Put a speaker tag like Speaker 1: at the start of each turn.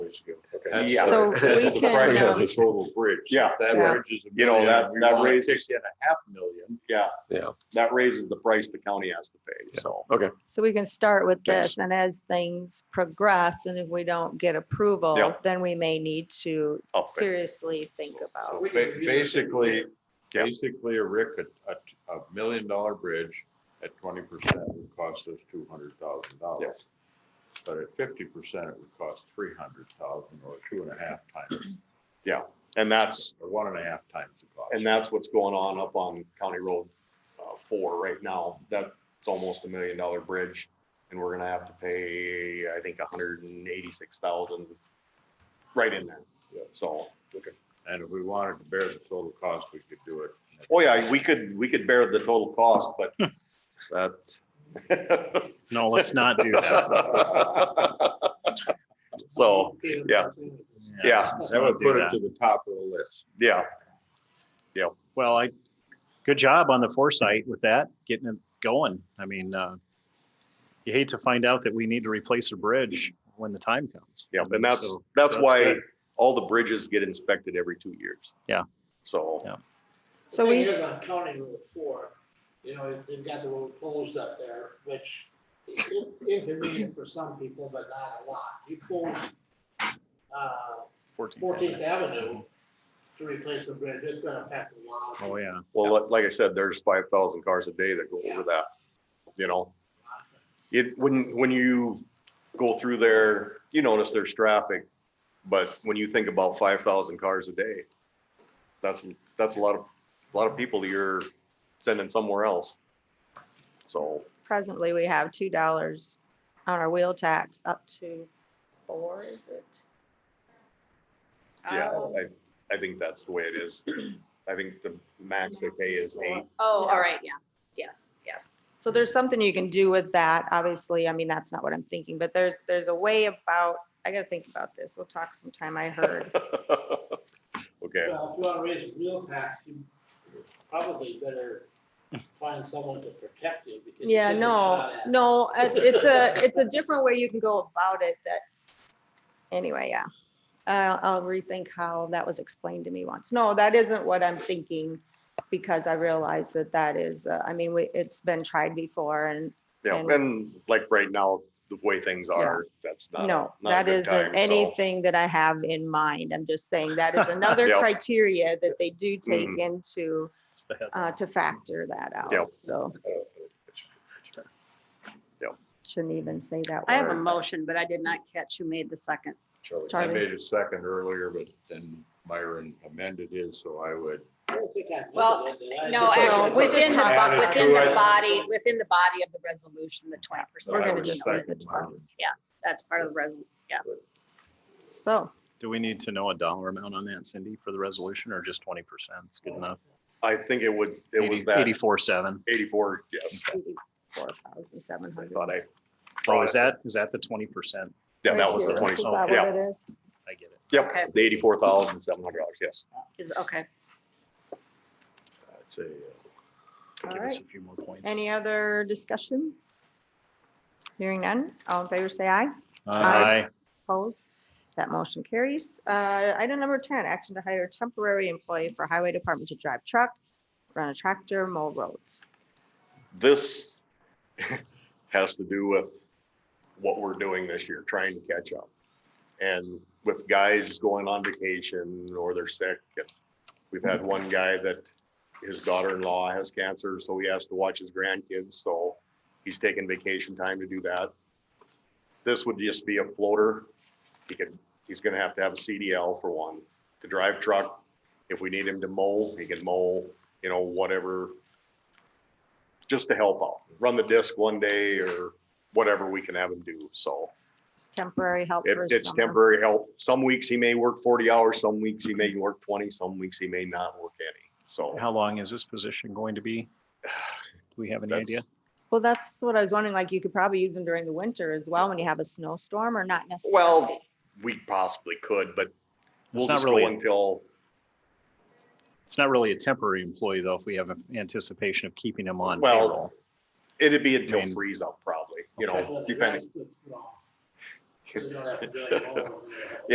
Speaker 1: years ago.
Speaker 2: Okay.
Speaker 3: That's
Speaker 1: Yeah.
Speaker 3: the-
Speaker 4: So
Speaker 3: that's
Speaker 4: we
Speaker 3: the
Speaker 4: can,
Speaker 3: price of
Speaker 4: um,
Speaker 3: the Total bridge.
Speaker 1: Yeah.
Speaker 3: If That
Speaker 4: Yeah.
Speaker 3: bridge is a
Speaker 1: You know,
Speaker 3: million,
Speaker 1: that-
Speaker 3: we
Speaker 1: that
Speaker 3: wanna
Speaker 1: raise-
Speaker 3: kick in a half million.
Speaker 1: Yeah.
Speaker 2: Yeah.
Speaker 1: That raises the price the county has to pay,
Speaker 2: Yeah.
Speaker 1: so.
Speaker 2: Okay.
Speaker 4: So we can start with
Speaker 1: Okay.
Speaker 4: this and as things progress and if we don't get approval,
Speaker 1: Yeah. Oh,
Speaker 4: then we may need to
Speaker 1: up it.
Speaker 4: seriously think about.
Speaker 3: Ba- Basically,
Speaker 1: Yeah.
Speaker 3: basically, a Rick, a, a, a million dollar bridge at twenty percent would cost us two hundred thousand dollars. But at fifty percent, it would cost three hundred thousand or two and a half times,
Speaker 1: And that's,
Speaker 3: or one and a half times the cost.
Speaker 1: and that's what's going on up on County Road uh, four right now. That's almost a million dollar bridge. And we're gonna have to pay, I think, hundred and eighty-six thousand right in there.
Speaker 3: Yep.
Speaker 1: So,
Speaker 3: And if we wanted to bear the total cost, we could do it.
Speaker 1: oh yeah, we could, we could bear the total cost, but that.
Speaker 5: No, let's not do that.
Speaker 1: So, yeah, yeah,
Speaker 5: let's
Speaker 3: That
Speaker 5: not
Speaker 3: would
Speaker 5: do
Speaker 3: put it
Speaker 5: that.
Speaker 3: to the top of the list.
Speaker 1: yeah,
Speaker 5: Well, I, good job on the foresight with that, getting it going. I mean, uh, you hate to find out that we need to replace a bridge when the time comes.
Speaker 1: yeah.
Speaker 5: I mean,
Speaker 1: And that's,
Speaker 5: so
Speaker 1: that's
Speaker 5: that's
Speaker 1: why
Speaker 5: good.
Speaker 1: all the bridges get inspected every two years.
Speaker 5: Yeah.
Speaker 1: So,
Speaker 5: Yeah.
Speaker 4: So we-
Speaker 6: Here's on County Road Four, you know, they've got the road closed up there, which is inconvenient for some people, but not a lot. You close uh,
Speaker 5: 14th
Speaker 6: Fourteenth
Speaker 5: Avenue.
Speaker 6: Avenue to replace the bridge, it's gonna affect a lot. of
Speaker 5: Oh,
Speaker 6: people.
Speaker 5: yeah.
Speaker 1: well, li- like I said, there's five thousand cars a day that go over that, you know? It, when, when you go through there, you notice there's traffic, but when you think about five thousand cars a day, that's, that's a lot of, a lot of people you're sending somewhere else. So,
Speaker 4: Presently, we have two dollars on our wheel tax up to four, is it?
Speaker 1: yeah,
Speaker 4: Oh.
Speaker 1: I, I think that's the way it is. I think the max they pay is eight.
Speaker 4: Oh, all right, yeah, yes, yes. So there's something you can do with that, obviously, I mean, that's not what I'm thinking, but there's, there's a way about, I gotta think about this, we'll talk sometime, I heard.
Speaker 1: Okay.
Speaker 6: Well, if you wanna raise real tax, you probably better find someone to protect you because. you're
Speaker 4: Yeah,
Speaker 6: getting
Speaker 4: no,
Speaker 6: shot at.
Speaker 4: no, it- it's a, it's a different way you can go about it, that's, anyway, yeah. I'll, I'll rethink how that was explained to me once. No, that isn't what I'm thinking, because I realize that that is, uh, I mean, we, it's been tried before, and
Speaker 1: Yeah,
Speaker 4: And-
Speaker 1: and like right now, the way things are, that's not. a-
Speaker 4: No,
Speaker 1: not a
Speaker 4: that
Speaker 1: good
Speaker 4: isn't
Speaker 1: time, so-
Speaker 4: anything that I have in mind. I'm just saying that is another
Speaker 1: Yep.
Speaker 4: criteria that they do take
Speaker 1: Mhm.
Speaker 4: into,
Speaker 5: It's the head.
Speaker 4: uh, to factor that out.
Speaker 1: Yep.
Speaker 3: Uh,
Speaker 4: So shouldn't even say that
Speaker 7: I have a
Speaker 4: word.
Speaker 7: motion, but I did not catch who made the second.
Speaker 3: I
Speaker 4: Charlie.
Speaker 3: made a second earlier, but then Myron amended his, so I would.
Speaker 6: I don't think I've
Speaker 7: Well,
Speaker 6: looked at it, and I-
Speaker 7: No, actually,
Speaker 4: it's
Speaker 7: within the, bo-
Speaker 3: added
Speaker 7: within
Speaker 3: to
Speaker 7: the
Speaker 3: it.
Speaker 7: body, within the body of the resolution, the twenty
Speaker 3: so
Speaker 7: percent.
Speaker 4: We're
Speaker 3: I
Speaker 4: gonna
Speaker 3: would
Speaker 4: just
Speaker 3: second
Speaker 4: leave it
Speaker 3: Myron.
Speaker 7: That's part of the resolution.
Speaker 4: So
Speaker 5: Do we need to know a dollar amount on that, Cindy, for the resolution or just 20%? It's good enough.
Speaker 1: I think it would, it was
Speaker 5: 80
Speaker 1: that
Speaker 5: 84.7.
Speaker 1: eighty-four, yes,
Speaker 4: eighty-four thousand seven
Speaker 1: I
Speaker 4: hundred.
Speaker 1: thought I,
Speaker 5: Oh, is that, is that the 20%?
Speaker 1: yeah, that was the
Speaker 5: here.
Speaker 1: twenty,
Speaker 4: Is that
Speaker 1: yeah,
Speaker 4: what it is?
Speaker 5: I get it.
Speaker 7: Okay.
Speaker 1: yep, the eighty-four thousand seven hundred dollars, yes.
Speaker 7: Is, okay.
Speaker 3: I'd say, uh,
Speaker 4: All
Speaker 5: Give us
Speaker 4: right.
Speaker 5: a few more points.
Speaker 4: Any other discussion? Hearing none. All in favor, say aye.
Speaker 5: Aye.
Speaker 4: Opposed? That motion carries. Uh, Item number 10, action to hire a temporary employee for Highway Department to drive truck, run a tractor, mow roads.
Speaker 1: This has to do with what we're doing this year, trying to catch up. And with guys going on vacation or they're sick. and We've had one guy that his daughter-in-law has cancer, so he has to watch his grandkids, so he's taking vacation time to do that. This would just be a floater. He could, he's gonna have to have a CDL for one, to drive truck. If we need him to mow, he can mow, you know, whatever. Just to help out, run the disc one day or whatever we can have him do, so.
Speaker 4: It's temporary help
Speaker 1: It,
Speaker 4: for
Speaker 1: it's
Speaker 4: summer.
Speaker 1: temporary help. Some weeks he may work forty hours, some weeks he may work twenty, some weeks he may not work any. So
Speaker 5: How long is this position going to be? Do we have any idea?
Speaker 1: that's,
Speaker 4: Well, that's what I was wondering, like you could probably use them during the winter as well when you have a snowstorm or not necessarily.
Speaker 1: well, we possibly could, but we'll
Speaker 5: It's not
Speaker 1: just go
Speaker 5: really, a-
Speaker 1: until,
Speaker 5: it's not really a temporary employee though, if we have an anticipation of keeping him on
Speaker 1: Well,
Speaker 5: payroll.
Speaker 1: it'd be until
Speaker 5: mean-
Speaker 1: freeze up probably, you
Speaker 5: Okay.
Speaker 1: know, depending.
Speaker 6: You don't have to do it all.